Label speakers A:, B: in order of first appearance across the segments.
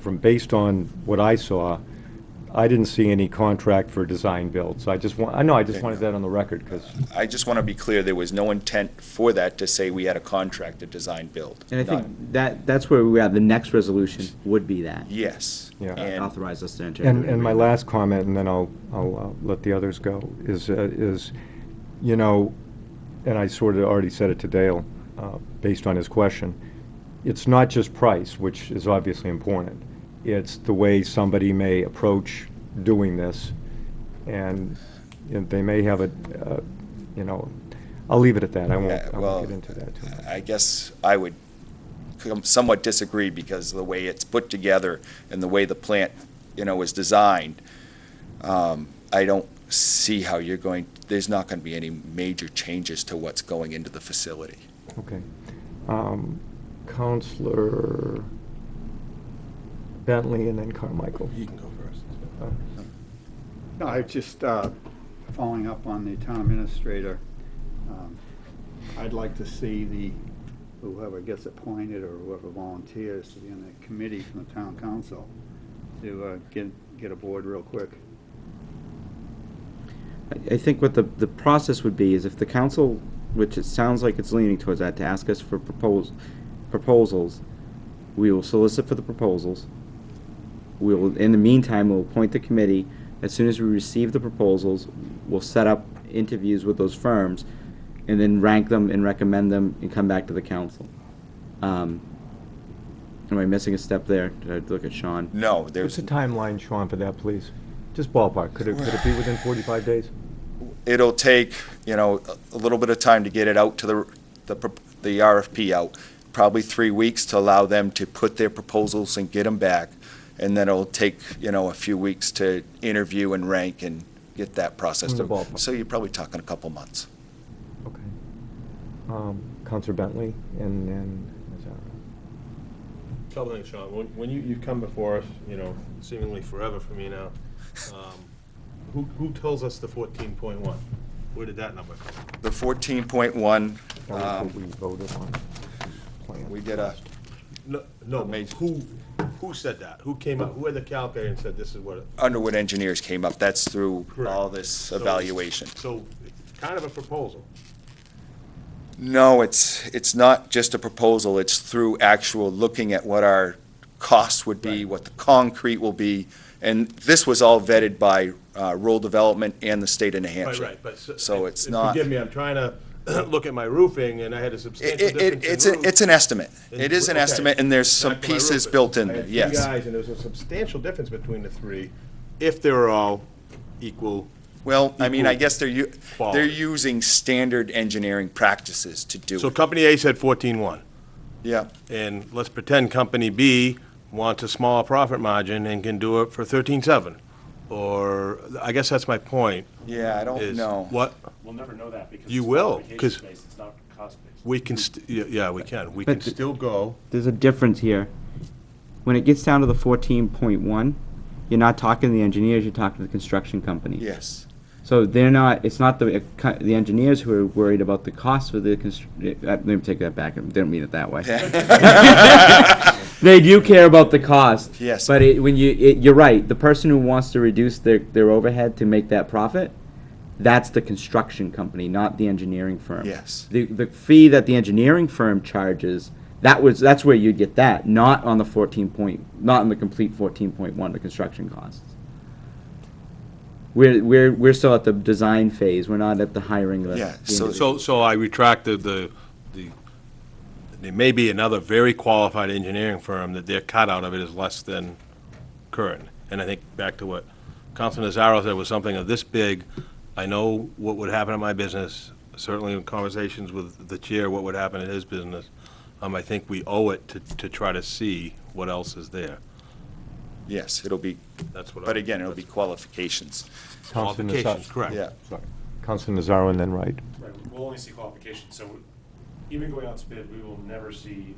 A: from, based on what I saw, I didn't see any contract for design build, so I just want, I know, I just wanted that on the record, because,
B: I just want to be clear, there was no intent for that to say we had a contract to design build.
C: And I
B: None.
C: think that, that's where we are, the next resolution would be that.
B: Yes.
A: Yeah.
B: And
C: Authorize us to enter. into
A: and,
C: an
A: and my
C: agreement.
A: last comment, and then I'll, I'll uh, let the others go, is, uh, is, you know, and I sort of already said it to Dale, uh, based on his question, it's not just price, which is obviously important. It's the way somebody may approach doing this, and you know, they may have a, uh, you know, I'll leave it at that. I won't,
B: Uh,
A: I
B: well, uh,
A: won't get into that too much.
B: I guess I would com- somewhat disagree because of the way it's put together and the way the plant, you know, is designed. Um, I don't see how you're going, there's not going to be any major changes to what's going into the facility.
A: Okay. Um, Counselor Bentley and then Carmichael.
D: You can go first.
A: Uh,
E: No, I just, uh, following up on the town administrator, um, I'd like to see the, whoever gets appointed or whoever volunteers to be on the committee from the town council to uh, get, get aboard real quick.
C: I I think what the, the process would be is if the council, which it sounds like it's leaning towards that, to ask us for propos proposals, we will solicit for the proposals. We will, in the meantime, we'll appoint the committee. As soon as we receive the proposals, we'll set up interviews with those firms and then rank them and recommend them and come back to the council. Um, Am I missing a step there? Did I look at Sean?
B: No,
A: What's
B: there's,
A: the timeline, Sean, for that, please? Just ballpark. Could it, could it be within 45 days?
B: it'll take, you know, a a little bit of time to get it out to the, the prop- the RFP out, probably three weeks to allow them to put their proposals and get them back. And then it'll take, you know, a few weeks to interview and rank and get that process.
A: In the
B: to-
A: ballpark.
B: So you're probably talking a couple months.
A: Okay. Um, Counselor Bentley and then, is that
D: Couple things, Sean. When, when you, you've come before us, you know, seemingly forever for me now, um, who, who tells us the fourteen point one? Where did that number come from?
B: The fourteen point one,
A: right? That was what we voted on. the plan.
B: we did a,
D: No, no, but
B: Amazing.
D: who, who said that? Who came up, who had the calculator and said this is what? it-
B: Underwood Engineers came up, that's through all this
D: So-
B: evaluation.
D: So, it's kind of a proposal.
B: No, it's, it's not just a proposal, it's through actual looking at what our costs would be,
D: Right.
B: what the concrete will be, and this was all vetted by uh, rural development and the state of New
D: Right,
B: Hampshire.
D: right, but.
B: So it's
D: and
B: not,
D: Forgive me, I'm trying to look at my roofing and I had a
B: it,
D: substantial
B: it-
D: difference in
B: it, it's, an-
D: roof.
B: it's an estimate.
D: And-
B: It is an
D: okay.
B: estimate, and there's
D: Back
B: some
D: to my
B: pieces
D: roofing.
B: built in
D: I
B: there,
D: had three
B: yes.
D: guys, and there's a substantial difference between the three, if they're all equal.
B: Well, I mean, I
D: equal
B: guess they're, u- they're
D: quality.
B: using standard engineering practices to do
D: So
B: it.
D: company A said fourteen-one,
B: Yeah,
D: and let's pretend company B wants a smaller profit margin and can do it for thirteen-seven. Or, I guess that's my point,
B: yeah, I don't
D: is
B: know.
D: what,
F: We'll never know that because.
D: You
F: it's
D: will,
F: application
D: 'cause-
F: based, It's not cost-based.
D: we can, st- yeah, yeah, we can, we
C: But
D: can
C: the-
D: still go.
C: there's a difference here. When it gets down to the fourteen point one, you're not talking to the engineers, you're talking to the construction company.
B: Yes,
C: So they're not, it's not the, the engineers who are worried about the cost for the constr, uh, let me take that back, I didn't mean it that way. They do care about the cost.
B: Yes.
C: But it, when you, it, you're right, the person who wants to reduce their, their overhead to make that profit, that's the construction company, not the engineering firm.
B: Yes.
C: The, the fee that the engineering firm charges, that was, that's where you'd get that, not on the fourteen point, not on the complete fourteen point one, the construction costs. We're, we're, we're still at the design phase, we're not at the hiring the-
B: Yeah,
C: the
B: so-
C: individual.
D: So, so I retracted the, the, there may be another very qualified engineering firm that their cutout of it is less than current. And I think back to what Councilman Nazaro said was something of this big, I know what would happen in my business, certainly in conversations with the chair, what would happen in his business. Um, I think we owe it to, to try to see what else is there.
B: yes, it'll be,
D: That's what I.
B: but again, it'll be qualifications,
A: Counselor Nazar-
D: Qualifications, correct.
B: yeah.
A: Sorry. Counselor Nazaro and then Wright.
F: Right, We'll only see qualifications, so we- even going out to bid, we will never see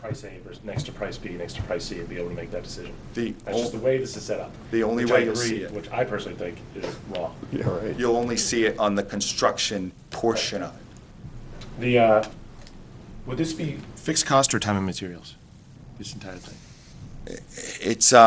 F: price A versus next to price B, next to price C, and be able to make that decision.
B: The
F: That's just the
B: ol-
F: way this is set up.
B: the only
F: which I
B: way you'll see
F: agree-
B: it.
F: Which I personally think is wrong.
A: Yeah, right.
B: You'll only see it on the construction portion of it.
F: The, uh, would this be
G: Fixed cost or time and materials? This entire thing?
B: it's, uh,